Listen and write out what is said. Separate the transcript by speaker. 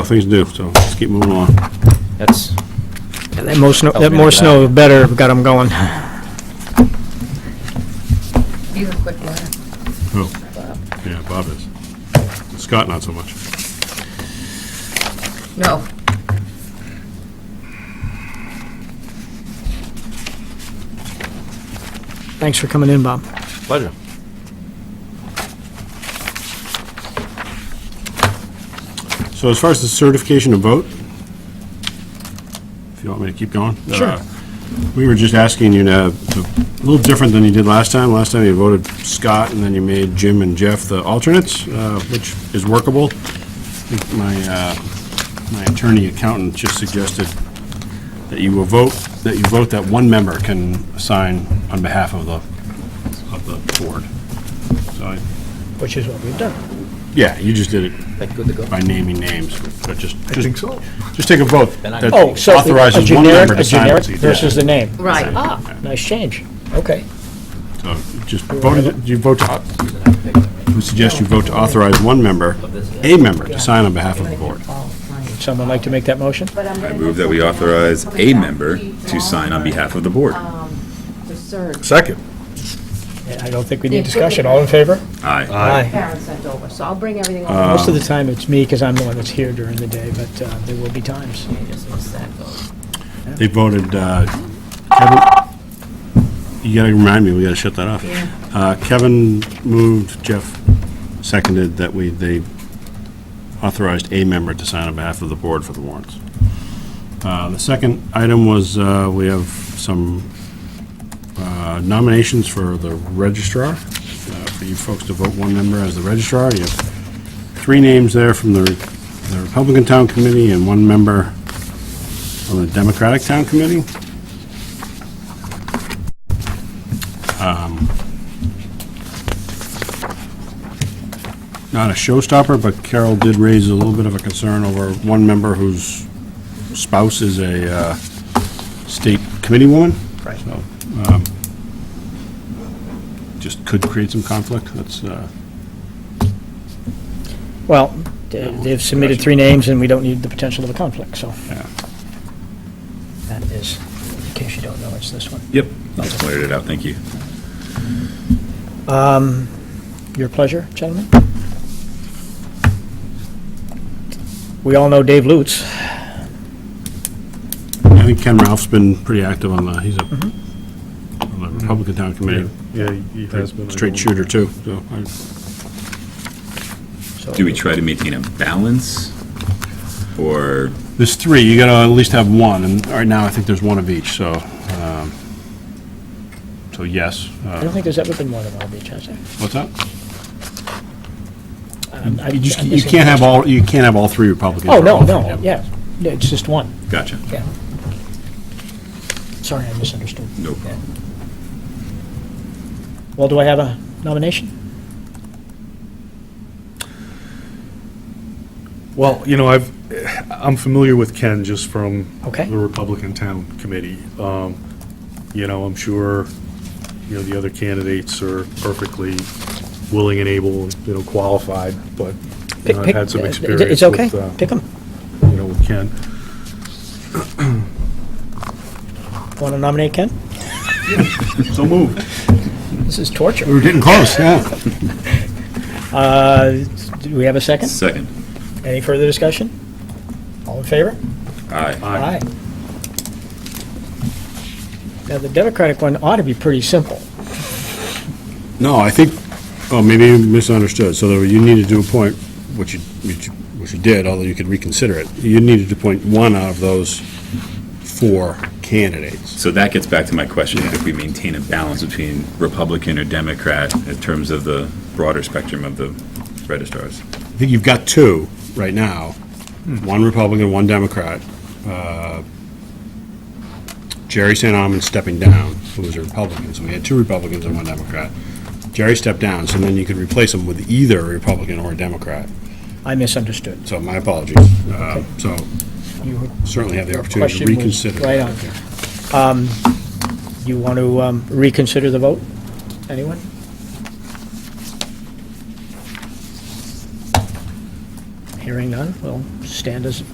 Speaker 1: things to do, so let's keep moving on.
Speaker 2: That's,
Speaker 3: And that more snow,
Speaker 2: Help
Speaker 3: that
Speaker 2: me
Speaker 3: more
Speaker 2: with that.
Speaker 3: snow, the better, got them going.
Speaker 4: He's a quick learner.
Speaker 1: Oh, yeah, Bob is. Scott, not so much.
Speaker 4: No,
Speaker 3: Thanks for coming in, Bob.
Speaker 2: pleasure.
Speaker 1: So as far as the certification of vote, if you want me to keep going? Sure. We were just asking you to, a little different than you did last time. Last time you voted Scott, and then you made Jim and Jeff the alternates, uh, which is workable. I think My, uh, my attorney accountant just suggested that you will vote, that you vote that one member can sign on behalf of the, of the board. So, I-
Speaker 3: Which is what we've done.
Speaker 1: yeah, you just did it
Speaker 2: Like, good to go.
Speaker 1: by naming names, but just, just
Speaker 5: so.
Speaker 1: just take a vote
Speaker 2: Then I-
Speaker 1: that
Speaker 3: Oh, so a
Speaker 1: authorizes one
Speaker 3: generic,
Speaker 1: member
Speaker 3: a
Speaker 1: to sign
Speaker 3: generic
Speaker 1: what's each.
Speaker 3: versus the name.
Speaker 4: right. Ah,
Speaker 3: Nice change. Okay.
Speaker 1: So Just voted, you vote, to- we suggest you vote to authorize one member, a member, to sign on behalf of the board.
Speaker 3: Someone like to make that motion?
Speaker 6: I move that we authorize a member to sign on behalf of the board.
Speaker 7: The surge
Speaker 5: Second.
Speaker 3: I don't think we need discussion. All in favor?
Speaker 6: Aye.
Speaker 7: Karen sent over, so I'll bring everything
Speaker 6: Uh,
Speaker 7: over.
Speaker 3: Most of the time, it's me, because I'm the one that's here during the day, but uh, there will be times.
Speaker 1: They voted, uh, Kevin, you gotta remind me, we gotta shut that off. Uh, Kevin moved, Jeff seconded that we, they authorized a member to sign on behalf of the board for the warrants. Uh, The second item was, uh, we have some uh, nominations for the registrar, uh, for you folks to vote one member as the registrar. You have three names there from the the Republican Town Committee and one member on the Democratic Town Committee. Um, Not a showstopper, but Carol did raise a little bit of a concern over one member whose spouse is a uh, state committee woman. Right. Just could create some conflict, that's, uh,
Speaker 3: Well, they- they've submitted three names, and we don't need the potential of a conflict, so.
Speaker 1: Yeah.
Speaker 3: That is, in case you don't know, it's this one.
Speaker 6: Yep, I just cleared it out, thank you.
Speaker 3: Your pleasure, gentlemen? We all know Dave Lutz.
Speaker 1: I think Ken Ralph's been pretty active on the, he's a on the Republican Town Committee,
Speaker 5: Yeah, he has been. I
Speaker 1: straight
Speaker 5: don't-
Speaker 1: shooter too, so I
Speaker 3: so-
Speaker 6: Do we try to maintain a balance? Or,
Speaker 1: There's three, you gotta at least have one, and right now, I think there's one of each, so, um, so yes.
Speaker 3: I
Speaker 1: Uh,
Speaker 3: don't think there's ever been more than one of each, has there?
Speaker 1: What's that?
Speaker 3: I'm- I'm-
Speaker 1: You just,
Speaker 3: I'm
Speaker 1: you
Speaker 3: missing
Speaker 1: can't have
Speaker 3: those.
Speaker 1: all, you can't have all three Republicans.
Speaker 3: Oh,
Speaker 1: or
Speaker 3: no,
Speaker 1: all three
Speaker 3: no,
Speaker 1: Dem-
Speaker 3: yeah. No, It's just one.
Speaker 6: gotcha,
Speaker 3: Yeah. Sorry, I misunderstood.
Speaker 6: no problem.
Speaker 3: Well, do I have a nomination?
Speaker 5: Well, you know, I've, I'm familiar with Ken just from
Speaker 3: Okay.
Speaker 5: the Republican Town Committee. Um, You know, I'm sure, you know, the other candidates are perfectly willing and able, you know, qualified, but you
Speaker 3: Pick-
Speaker 5: know, I've
Speaker 3: pick-
Speaker 5: had some
Speaker 3: uh,
Speaker 5: experience
Speaker 3: It's okay,
Speaker 5: with, uh,
Speaker 3: pick them.
Speaker 5: You know, with Ken.
Speaker 3: Want to nominate Ken?
Speaker 5: So moved.
Speaker 3: This is
Speaker 1: We
Speaker 3: torture.
Speaker 1: were getting close, yeah.
Speaker 3: Uh, Do we have a second?
Speaker 6: Second.
Speaker 3: Any further discussion? All in favor?
Speaker 6: Aye.
Speaker 5: Aye.
Speaker 3: Now, the Democratic one ought to be pretty simple.
Speaker 1: No, I think, oh, maybe you misunderstood, so there were- you needed to appoint, which you, which you- which you did, although you could reconsider it, you needed to appoint one out of those four candidates.
Speaker 6: So that gets back to my question, if we maintain a balance between Republican or Democrat in terms of the broader spectrum of the registrars.
Speaker 1: I think you've got two right now, one Republican, one Democrat. Uh, Jerry St. Almond stepping down, who was a Republican, so we had two Republicans and one Democrat. Jerry stepped down, so then you could replace him with either a Republican or a Democrat.
Speaker 3: I misunderstood.
Speaker 1: So my apologies. Uh, So
Speaker 3: You
Speaker 1: certainly have the opportunity to
Speaker 3: question was
Speaker 1: reconsider.
Speaker 3: Right on. Um, You want to um, reconsider the vote? Anyone? Hearing none, we'll stand as